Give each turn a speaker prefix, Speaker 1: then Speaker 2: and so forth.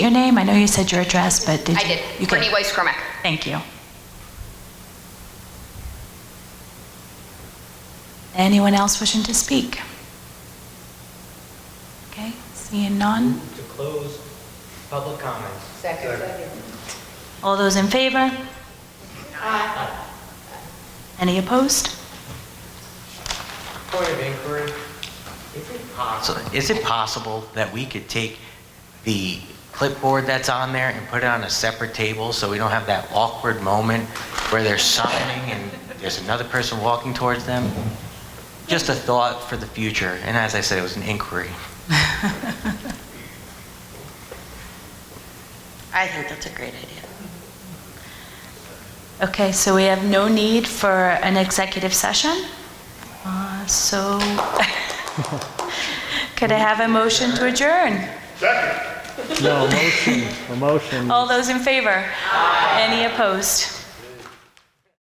Speaker 1: your name? I know you said your address, but did
Speaker 2: I
Speaker 1: you-
Speaker 2: did.
Speaker 1: you
Speaker 2: Brittany
Speaker 1: could-
Speaker 2: Weiss Cormack.
Speaker 1: Thank you. Anyone else wishing to speak? Okay, seeing none.
Speaker 3: to close public comments.
Speaker 1: All those in favor? Aye. Any opposed?
Speaker 3: Point of inquiry, is it possible, is it possible that we could take the clipboard that's on there and put it on a separate table so we don't have that awkward moment where they're signing and there's another person walking towards them? Just a thought for the future, and as I said, it was an inquiry.
Speaker 4: I think that's a great idea.
Speaker 1: Okay, so we have no need for an executive session. Uh, So could I have a motion to adjourn?
Speaker 5: No, a motion, a motion.
Speaker 1: Oh, All those in favor? Any opposed?